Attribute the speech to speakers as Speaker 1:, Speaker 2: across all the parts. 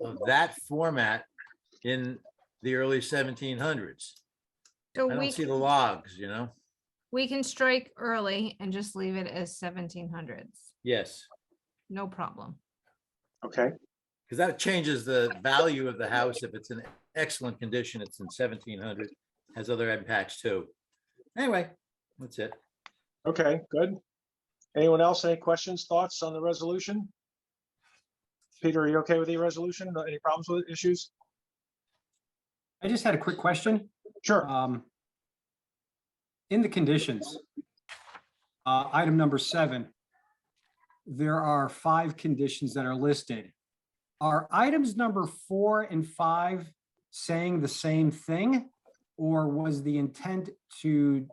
Speaker 1: of that format in the early seventeen hundreds.
Speaker 2: So
Speaker 1: I
Speaker 2: we,
Speaker 1: don't see the
Speaker 2: can-
Speaker 1: logs, you know?
Speaker 2: we can strike early and just leave it as seventeen hundreds.
Speaker 1: Yes,
Speaker 2: No problem.
Speaker 3: Okay,
Speaker 1: because that changes the value of the house. If it's in excellent condition, it's in seventeen hundred, has other impacts too. Anyway, that's it.
Speaker 3: okay, good. Anyone else, any questions, thoughts on the resolution? Peter, are you okay with the resolution? No- Any problems with it, issues?
Speaker 4: I just had a quick question.
Speaker 3: Sure,
Speaker 4: Um, In the conditions, uh, item number seven, there are five conditions that are listed. Are items number four and five saying the same thing? Or was the intent to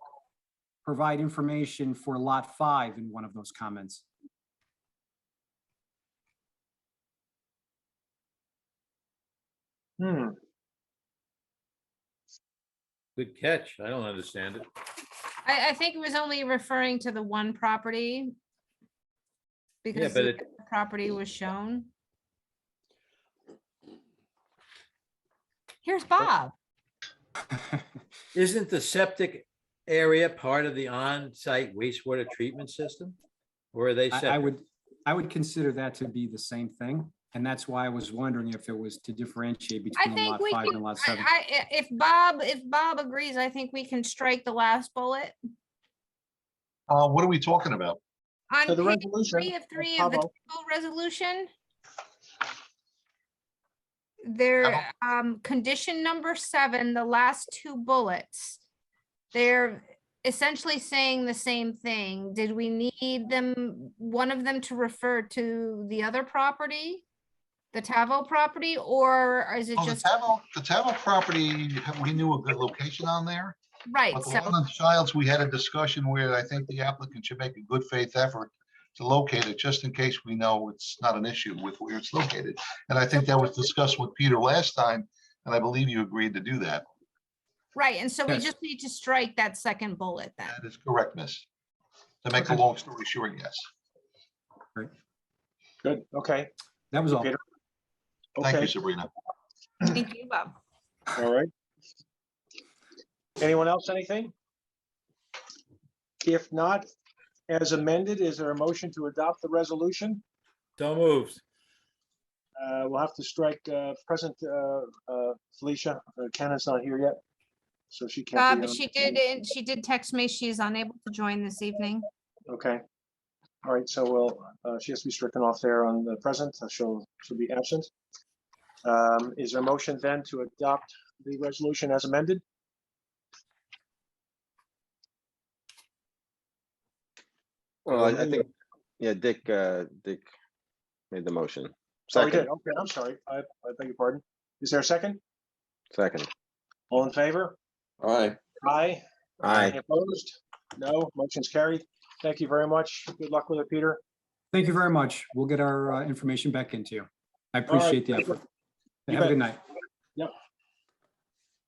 Speaker 4: provide information for lot five in one of those comments?
Speaker 3: hmm,
Speaker 1: Good catch. I don't understand it.
Speaker 2: I, I think it was only referring to the one property. Because
Speaker 1: but
Speaker 2: the
Speaker 1: it-
Speaker 2: other property was shown. Here's Bob.
Speaker 1: Isn't the septic area part of the on-site wastewater treatment system? Or are they
Speaker 4: I, I
Speaker 1: separate?
Speaker 4: would, I would consider that to be the same thing. And that's why I was wondering if it was to differentiate
Speaker 2: I
Speaker 4: between
Speaker 2: think
Speaker 4: lot
Speaker 2: we
Speaker 4: five
Speaker 2: can,
Speaker 4: and
Speaker 2: I,
Speaker 4: lot seven.
Speaker 2: I- i- if Bob, if Bob agrees, I think we can strike the last bullet.
Speaker 5: Uh, what are we talking about?
Speaker 2: On
Speaker 3: so the
Speaker 2: page
Speaker 3: resolution. uh,
Speaker 2: three of three of the
Speaker 3: Pablo,
Speaker 2: table resolution.
Speaker 5: Hello?
Speaker 2: There, um, condition number seven, the last two bullets. They're essentially saying the same thing. Did we need them, one of them to refer to the other property? The Tavo property, or is it
Speaker 5: Oh, the
Speaker 2: just,
Speaker 5: Tavo, the Tavo property, we knew a good location on there.
Speaker 2: right,
Speaker 5: But the
Speaker 2: so,
Speaker 5: one on Childs, we had a discussion where I think the applicant should make a good faith effort to locate it, just in case we know it's not an issue with where it's located. And I think that was discussed with Peter last time, and I believe you agreed to do that.
Speaker 2: right, and so we
Speaker 4: Yes.
Speaker 2: just need to strike that second bullet then.
Speaker 5: That is correct, miss. To make a
Speaker 4: Okay.
Speaker 5: long story short, yes.
Speaker 3: Good, okay,
Speaker 4: That was all.
Speaker 3: Peter.
Speaker 5: Thank you,
Speaker 3: okay,
Speaker 5: Sabrina.
Speaker 2: Thank you, Bob.
Speaker 3: all right. Anyone else, anything? If not, as amended, is there a motion to adopt the resolution?
Speaker 1: So moved.
Speaker 3: Uh, we'll have to strike, uh, present, uh, uh, Felicia, uh, Kenna's not here yet. So she can't. be
Speaker 2: Bob,
Speaker 3: on.
Speaker 2: she did, and she did text me, she's unable to join this evening.
Speaker 3: Okay. All right, so we'll, uh, she has to be stricken off there on the present, so she'll, she'll be absent. Um, is there a motion then to adopt the resolution as amended?
Speaker 6: Well, I I
Speaker 3: Who-
Speaker 6: think, yeah, Dick, uh, Dick made the motion.
Speaker 3: Oh, we did,
Speaker 6: Second,
Speaker 3: okay, I'm sorry, I, I beg your pardon. Is there a second?
Speaker 6: second.
Speaker 3: All in favor?
Speaker 6: Aye.
Speaker 3: Aye.
Speaker 6: Aye.
Speaker 3: Opposed? No, motion's carried. Thank you very much. Good luck with it, Peter.
Speaker 4: Thank you very much. We'll get our uh, information back into you. I
Speaker 3: All right,
Speaker 4: appreciate the
Speaker 3: thank you.
Speaker 4: effort.
Speaker 3: You
Speaker 4: Have a
Speaker 3: bet.
Speaker 4: good night.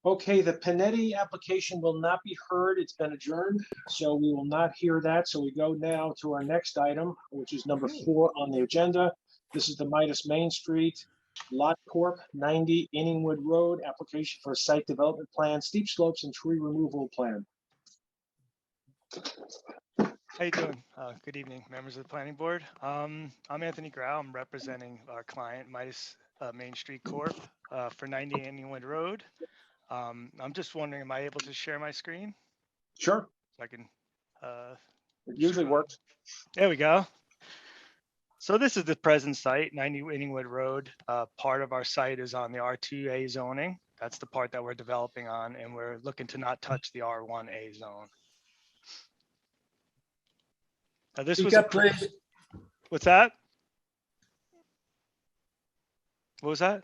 Speaker 3: Okay, the Panetti application will not be heard. It's been adjourned, so we will not hear that. So we go now to our next item, which is number four on the agenda. This is the Midas Main Street Lot Corp. 90 Inningwood Road, application for a site development plan, steep slopes and tree removal plan.
Speaker 7: How you doing? Uh, Good evening, members of the planning board. Um, I'm Anthony Grau. I'm representing our client Midas uh, Main Street Corp. uh, for 90 Anniewood Road. Um, I'm just wondering, am I able to share my screen?
Speaker 3: Sure,
Speaker 7: So I can, uh,
Speaker 3: it usually works.
Speaker 7: there we go. So this is the present site, 90 Inningwood Road. Uh, Part of our site is on the R2A zoning. That's the part that we're developing on, and we're looking to not touch the R1A zone. Now, this was.
Speaker 1: Speak up,
Speaker 7: appro-
Speaker 1: please.
Speaker 7: What's that? What was that?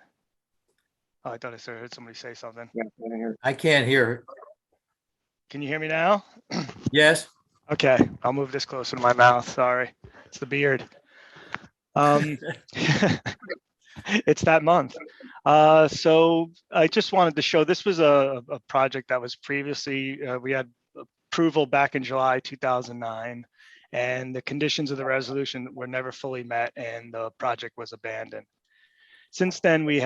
Speaker 7: Oh, I thought I sort of heard somebody say something.
Speaker 3: Yeah, I didn't hear.
Speaker 1: I can't hear. her.
Speaker 7: Can you hear me now?
Speaker 1: Yes?
Speaker 7: Okay, I'll move this closer to my mouth. Sorry, it's the beard. Um, it's that month. Uh, so I just wanted to show this was a, a project that was previously uh, we had approval back in July 2009, and the conditions of the resolution were never fully met, and the project was abandoned. Since then, we